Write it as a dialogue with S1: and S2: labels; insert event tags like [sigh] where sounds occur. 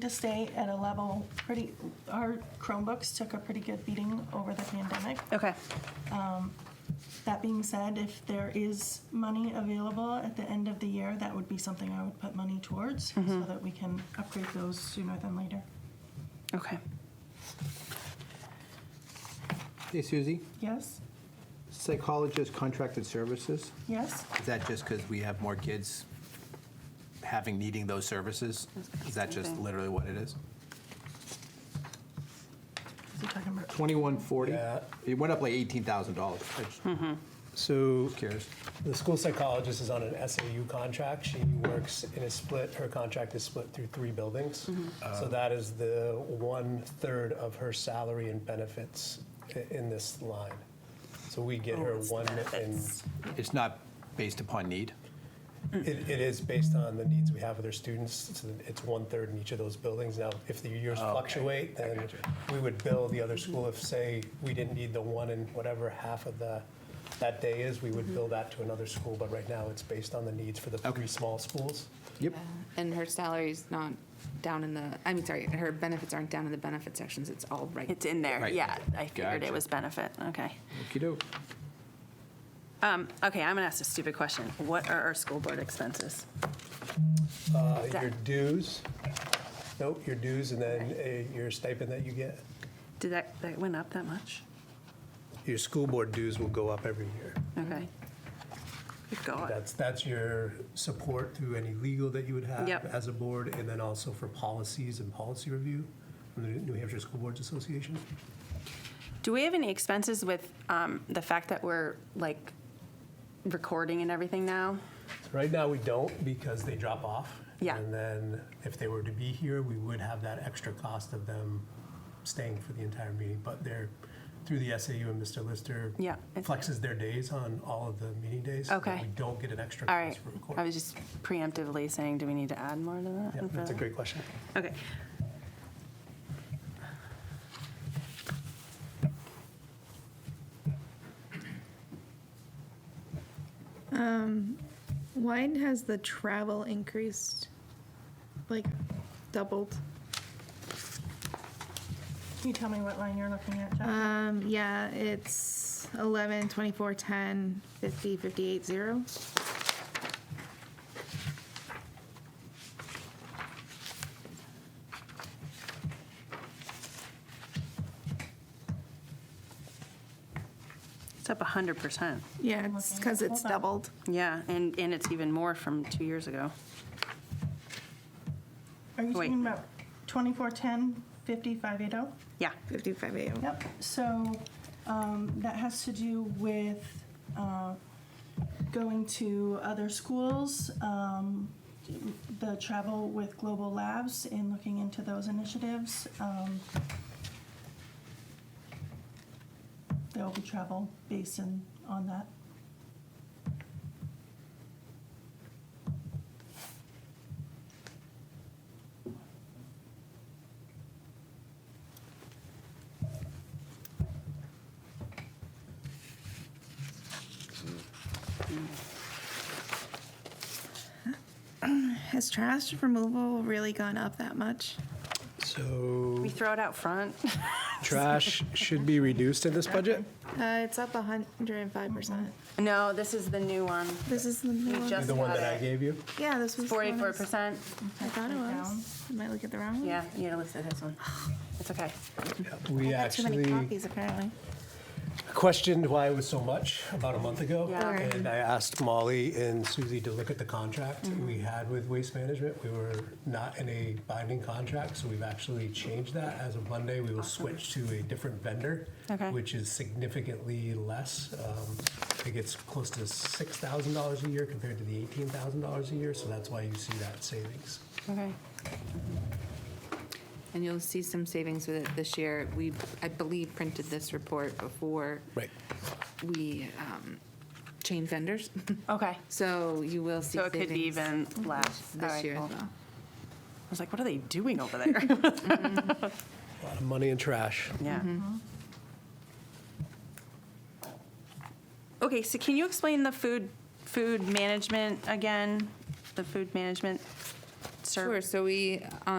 S1: to stay at a level pretty, our Chromebooks took a pretty good beating over the pandemic.
S2: Okay.
S1: That being said, if there is money available at the end of the year, that would be something I would put money towards so that we can upgrade those sooner than later.
S2: Okay.
S3: Hey, Susie,
S1: Yes?
S3: psychologist contracted services,
S1: Yes?
S3: is that just because we have more kids having, needing those services? Is that just
S2: Okay.
S3: literally what it is?
S1: Is he talking about?
S3: 2140?
S4: Yeah.
S3: It went up like $18,000. I just-
S4: So
S3: Just curious.
S4: the school psychologist is on an SAU contract. She works in a split, her contract is split through three buildings. So that is the one-third of her salary and benefits i- in this line. So we get her one, and
S3: It's not based upon need?
S4: it, it is based on the needs we have with our students. It's- It's one-third in each of those buildings. Now, if the years fluctuate, then we would bill the other school if, say, we didn't need the one and whatever half of the, that day is, we would bill that to another school. But right now, it's based on the needs for the three small schools.
S3: Yep.
S5: And her salary's not down in the, I mean, sorry, her benefits aren't down in the benefit sections, it's all right.
S2: It's in there.
S3: Right.
S2: Yeah. I figured
S3: Gotcha.
S2: it was benefit. Okay.
S3: Okey-doke.
S2: Um, okay. I'm going to ask a stupid question. What are our school board expenses?
S4: Uh,
S2: that-
S4: Your dues, nope, your dues and then uh, your stipend that you get.
S2: Did that, that went up that much?
S4: Your school board dues will go up every year.
S2: Okay. Good God.
S4: That's, that's your support through any legal that you would have
S2: Yep.
S4: as a board, and then also for policies and policy review from the New Hampshire School Boards Association.
S2: Do we have any expenses with um, the fact that we're like recording and everything now?
S4: Right now, we don't because they drop off.
S2: Yeah.
S4: And then if they were to be here, we would have that extra cost of them staying for the entire meeting. But they're, through the SAU and Mr. Lister
S2: Yeah, it's-
S4: flexes their days on all of the meeting days. so that
S2: Okay.
S4: We don't get an extra
S2: All right.
S4: cost for recording.
S2: I was just preemptively saying, do we need to add more to that?
S4: Yeah,
S2: and
S4: that's a
S2: further?
S4: great question.
S2: Okay.
S6: Why has the travel increased? Like doubled?
S1: Can you tell me what line you're looking at, Jeff?
S6: Um, yeah, it's 11, 24, 10, 50, 58, 0.
S2: It's up 100%.
S6: Yeah, it's because it's
S1: Hold on.
S6: doubled.
S2: Yeah, and, and it's even more from two years ago.
S1: Are you
S2: wait.
S1: talking about 2410, 50580?
S2: Yeah.
S6: 55, 8.
S1: Yep, so um, that has to do with uh, going to other schools, um, the travel with Global Labs and looking into those initiatives. Um, There will be travel based in, on that.
S6: Has trash removal really gone up that much?
S4: So
S2: [laughs] We throw it out front.
S4: trash should be reduced in this budget?
S6: Uh, it's up 105%.
S2: No, this is the new one.
S6: This is the new
S2: We
S6: one.
S2: just
S4: The one
S2: got
S4: that I
S2: it.
S4: gave you?
S6: Yeah, this was the one I
S2: Forty-four
S6: was-
S2: percent.
S6: I thought it was. I might look at the wrong one.
S2: Yeah, you gotta listen to this one. [sighs] It's okay.
S4: We
S6: I got too many
S4: actually
S6: copies apparently.
S4: questioned why it was so much about a month ago.
S2: Yeah.
S6: Okay.
S4: And I asked Molly and Susie to look at the contract
S6: Mm-hmm.
S4: we had with Waste Management. We were not in a binding contract, so we've actually changed that. As of Monday, we will switch to a different vendor,
S2: Okay.
S4: which is significantly less. Um, I think it's close to $6,000 a year compared to the $18,000 a year, so that's why you see that savings.
S2: Okay.
S5: And you'll see some savings with it this year. We, I believe, printed this report before
S4: Right.
S5: we um, changed vendors, [laughs]
S2: Okay.
S5: so you will see
S2: So it could be
S5: savings
S2: even less. All
S5: this
S2: right,
S5: year
S2: cool.
S5: as well.
S2: I was like, what are they doing
S5: [laughs]
S2: over there?
S4: A lot of money in trash.
S2: Yeah.
S5: Mm-hmm.
S2: Okay, so can you explain the food, food management again? The food management service?
S5: Sure, so we, um,